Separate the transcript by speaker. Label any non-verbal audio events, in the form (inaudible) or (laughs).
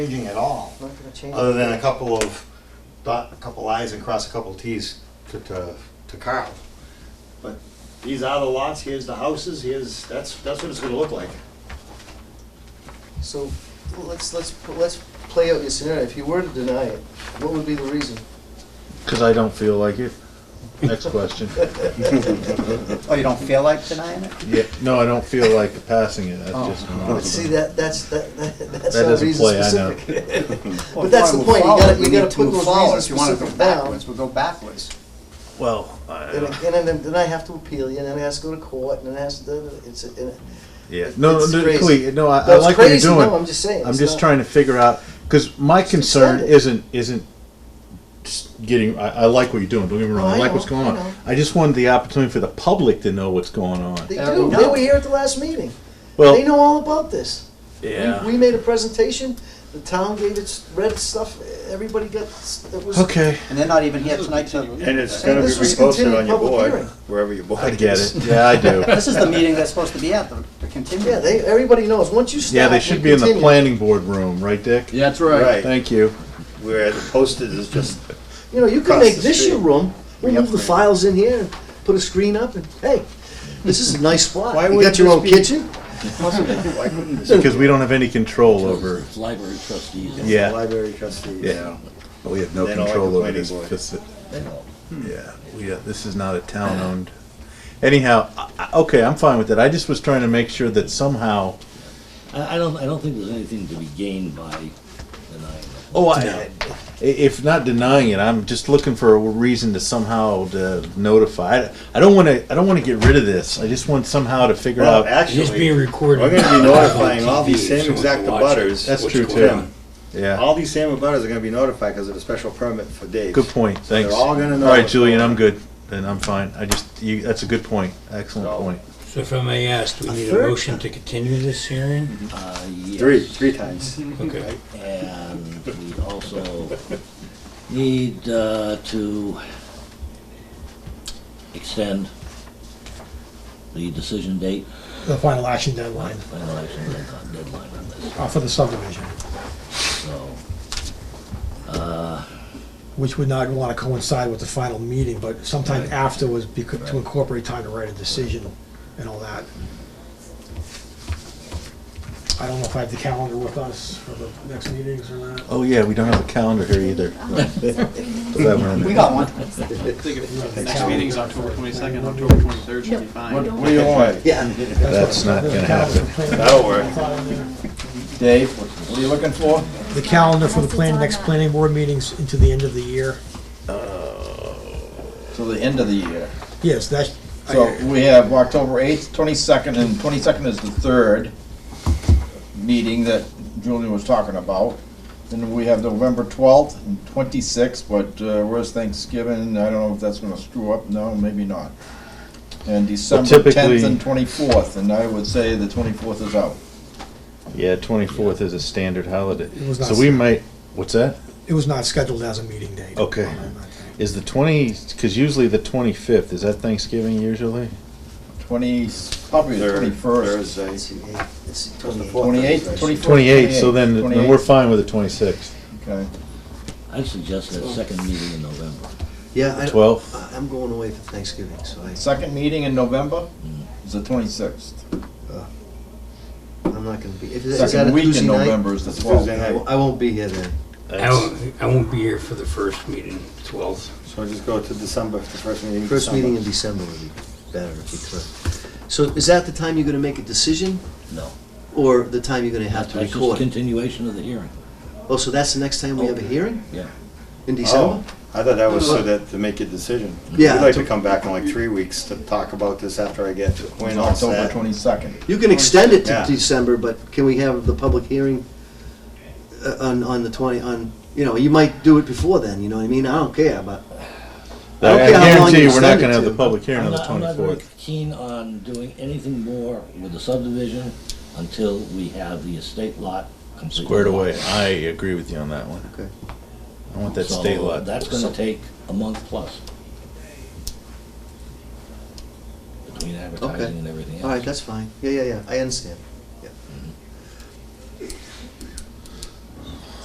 Speaker 1: changing at all,
Speaker 2: Not gonna change
Speaker 1: other
Speaker 2: it.
Speaker 1: than a couple of dot, a couple i's and cross a couple t's to, to, to Carl. But these are the lots, here's the houses, here's, that's, that's what it's gonna look like.
Speaker 2: So, well, let's, let's, let's play out your scenario. If you were to deny it, what would be the reason?
Speaker 3: Because I don't feel like it. Next
Speaker 2: (laughs)
Speaker 3: question.
Speaker 4: Oh, you don't feel like denying it?
Speaker 3: Yeah, no, I don't feel like passing it. That's
Speaker 4: Oh.
Speaker 3: just.
Speaker 2: But see, that, that's, that, that- that's
Speaker 3: That
Speaker 2: not
Speaker 3: doesn't
Speaker 2: reason
Speaker 3: play, I know.
Speaker 2: specific.
Speaker 4: Well,
Speaker 2: But that's
Speaker 4: if
Speaker 2: the
Speaker 4: you wanna move
Speaker 2: point, you
Speaker 4: forward,
Speaker 2: gotta- you
Speaker 4: we
Speaker 2: gotta
Speaker 4: need to
Speaker 2: put
Speaker 4: move
Speaker 2: those
Speaker 4: forward.
Speaker 2: reasons
Speaker 4: If you wanna
Speaker 2: specific
Speaker 4: go
Speaker 2: down.
Speaker 4: backwards, we'll go backwards.
Speaker 3: Well, I-
Speaker 2: And again, and then, then I have to appeal you, and then it has to go to court, and then it has to, it's, and it-
Speaker 3: yeah. No,
Speaker 2: it's
Speaker 3: no,
Speaker 2: crazy.
Speaker 3: Clea, no, I,
Speaker 2: No,
Speaker 3: I
Speaker 2: it's
Speaker 3: like what you're
Speaker 2: crazy,
Speaker 3: doing.
Speaker 2: no, I'm just saying,
Speaker 3: I'm
Speaker 2: it's
Speaker 3: just
Speaker 2: not-
Speaker 3: trying to figure out because my concern
Speaker 2: extended.
Speaker 3: isn't isn't s- getting. I, I like what you're doing. Don't get me wrong.
Speaker 2: No,
Speaker 3: I,
Speaker 2: I
Speaker 3: like
Speaker 2: know,
Speaker 3: what's going
Speaker 2: I know.
Speaker 3: on. I just wanted the opportunity for the public to know what's going on.
Speaker 2: they
Speaker 4: Yeah,
Speaker 2: do.
Speaker 4: we
Speaker 2: They
Speaker 4: know.
Speaker 2: were here at the last meeting.
Speaker 3: Well,
Speaker 2: They know all about this. We-
Speaker 3: yeah.
Speaker 2: We made a presentation, the town gave its red stuff, everybody got, s- it was.
Speaker 3: okay,
Speaker 4: And they're not even here tonight to.
Speaker 5: (laughs)
Speaker 6: And it's
Speaker 2: And
Speaker 6: gonna be
Speaker 2: this was
Speaker 6: reposted
Speaker 2: continued
Speaker 6: on your
Speaker 2: public
Speaker 6: board,
Speaker 2: hearing.
Speaker 6: wherever your board is.
Speaker 3: I get it. Yeah, I do.
Speaker 2: (laughs)
Speaker 4: This is the meeting that's supposed to be at, the the continuing.
Speaker 2: Yeah, they, everybody knows. Once you stop.
Speaker 3: Yeah, they
Speaker 2: we
Speaker 3: should be in the
Speaker 2: continue.
Speaker 3: planning board room, right, Dick?
Speaker 7: Yeah, that's right.
Speaker 6: Right,
Speaker 3: Thank you.
Speaker 6: where the posted is just,
Speaker 2: You know, you could
Speaker 6: Across
Speaker 2: make
Speaker 6: the
Speaker 2: this
Speaker 6: street.
Speaker 2: your room, we'll
Speaker 6: We have
Speaker 2: move the
Speaker 6: to-
Speaker 2: files in here, and put a screen up, and hey, this is a nice spot.
Speaker 6: Why
Speaker 2: You
Speaker 6: wouldn't
Speaker 2: got your
Speaker 6: this
Speaker 2: own
Speaker 6: be-
Speaker 2: kitchen?
Speaker 6: why couldn't this
Speaker 3: Because we don't have any control over.
Speaker 7: Library trustees.
Speaker 6: be the
Speaker 3: Yeah,
Speaker 6: library trustees?
Speaker 3: Yeah. we have no
Speaker 6: They don't like
Speaker 3: control
Speaker 6: the
Speaker 3: over
Speaker 6: planning
Speaker 3: this.
Speaker 6: board. Hmm.
Speaker 3: faci- Yeah, we, uh, this is not a town-owned. Anyhow, I- I- okay, I'm fine with it. I just was trying to make sure that somehow.
Speaker 7: I, I don't, I don't think there's anything to be gained by denying it.
Speaker 3: Oh, I. i- If not denying it, I'm just looking for a reason to somehow to notify. I- I don't want to. I don't want to get rid of this. I just want somehow to figure
Speaker 4: Uh,
Speaker 6: Well,
Speaker 3: out.
Speaker 6: actually,
Speaker 8: Just being
Speaker 6: we're
Speaker 8: recorded.
Speaker 6: gonna be notifying all
Speaker 8: the
Speaker 6: these same exact abutters.
Speaker 3: That's
Speaker 6: which
Speaker 3: true
Speaker 6: is
Speaker 3: too.
Speaker 6: them.
Speaker 3: Yeah.
Speaker 6: All these same abutters are gonna be notified because of a special permit for Dave.
Speaker 3: Good point,
Speaker 6: they're
Speaker 3: thanks.
Speaker 6: all gonna know
Speaker 3: All right,
Speaker 6: what's
Speaker 3: Julian,
Speaker 6: going
Speaker 3: I'm good, and I'm fine, I just, you, that's a good point, excellent
Speaker 6: So-
Speaker 3: point.
Speaker 8: So if I may ask, do we need a
Speaker 2: third?
Speaker 8: motion to continue this hearing?
Speaker 7: Uh, yes.
Speaker 6: Three, three times.
Speaker 8: Okay.
Speaker 7: And we also need uh, to extend the decision date,
Speaker 9: the final action deadline
Speaker 7: final action deadline- deadline on this,
Speaker 9: uh, for the subdivision,
Speaker 7: so.
Speaker 9: which would not want to coincide with the final meeting, but sometime afterwards, becau- to incorporate time to write a decision and all that. I don't know if I have the calendar with us for the next meetings or not.
Speaker 3: Oh, yeah, we don't have a calendar here either. Put that one in
Speaker 4: We
Speaker 3: there.
Speaker 4: got one.
Speaker 9: Next
Speaker 5: meeting's October twenty-second, October twenty-third should be fine.
Speaker 6: What do you want?
Speaker 3: That's not gonna happen.
Speaker 6: That'll work.
Speaker 4: Dave, what are you looking for?
Speaker 9: The calendar for the plan, next planning board meetings into the end of the year.
Speaker 4: Till the end of the year.
Speaker 9: Yes, that's,
Speaker 4: So we have October eighth, twenty-second, and twenty-second is the third meeting that Julian was talking about. Then we have November twelfth and twenty-sixth, but uh, where's Thanksgiving? I don't know if that's gonna screw up. No, maybe not. And December tenth
Speaker 3: typically-
Speaker 4: and twenty-fourth, and I would say the twenty-fourth is out.
Speaker 3: Yeah, twenty-fourth is a standard holiday,
Speaker 9: was not
Speaker 3: so we might, what's that?
Speaker 9: it was not scheduled as a meeting date.
Speaker 3: Okay. Is the twenty, cause usually the twenty-fifth, is that Thanksgiving usually?
Speaker 4: Twenty, probably the
Speaker 6: Third,
Speaker 4: twenty-first.
Speaker 6: Thursday.
Speaker 2: It's
Speaker 4: Twenty-eighth, twenty-first.
Speaker 3: Twenty-eighth, so then, then we're fine with the twenty-sixth.
Speaker 4: Okay.
Speaker 7: I'd suggest that second meeting in November.
Speaker 2: Yeah, I-
Speaker 3: Twelfth,
Speaker 2: I- I'm going away for Thanksgiving, so I,
Speaker 4: Second meeting in November is the twenty-sixth.
Speaker 2: I'm not gonna be, if is that a
Speaker 4: Second week
Speaker 2: Tuesday
Speaker 4: in
Speaker 2: night?
Speaker 4: November is the twelfth.
Speaker 6: Tuesday
Speaker 2: I
Speaker 6: night,
Speaker 2: won't- I won't be here then.
Speaker 8: I won't, I won't be here for the first meeting, 12th.
Speaker 6: so just go to December, the first meeting. in
Speaker 2: First
Speaker 6: December.
Speaker 2: meeting in December would be better if you could. So is that the time you're gonna make a decision,
Speaker 7: No,
Speaker 2: or the time you're gonna have to
Speaker 7: that's just
Speaker 2: record? it?
Speaker 7: continuation of the hearing.
Speaker 2: Oh, so that's the next time we have a hearing?
Speaker 7: Yeah.
Speaker 2: In
Speaker 6: Oh,
Speaker 2: December?
Speaker 6: I thought that was so that, to make a decision.
Speaker 2: Yeah.
Speaker 6: We'd Oh. like to come back in like three weeks to talk about this after I get Quinn all
Speaker 4: October
Speaker 6: set.
Speaker 4: twenty-second.
Speaker 2: You can extend it to
Speaker 6: Yeah.
Speaker 2: December, but can we have the public hearing uh, on, on the twenty, on, you know, you might do it before then, you know what I mean? I don't care, but. I
Speaker 3: I
Speaker 2: don't care how long
Speaker 3: guarantee
Speaker 2: you
Speaker 3: you, we're not
Speaker 2: extend
Speaker 3: gonna
Speaker 2: it
Speaker 3: have the
Speaker 2: to.
Speaker 3: public hearing
Speaker 7: I'm
Speaker 3: on the
Speaker 7: not, I'm not very
Speaker 3: twenty-fourth.
Speaker 7: keen on doing anything more with the subdivision until we have the estate lot completely.
Speaker 3: Squared
Speaker 7: locked.
Speaker 3: away, I agree with you on that one.
Speaker 2: Okay.
Speaker 3: I want that
Speaker 7: So
Speaker 3: state lot.
Speaker 7: That's gonna take a month plus. Between advertising and everything else.
Speaker 2: All right, that's fine. Yeah, yeah, yeah, I understand.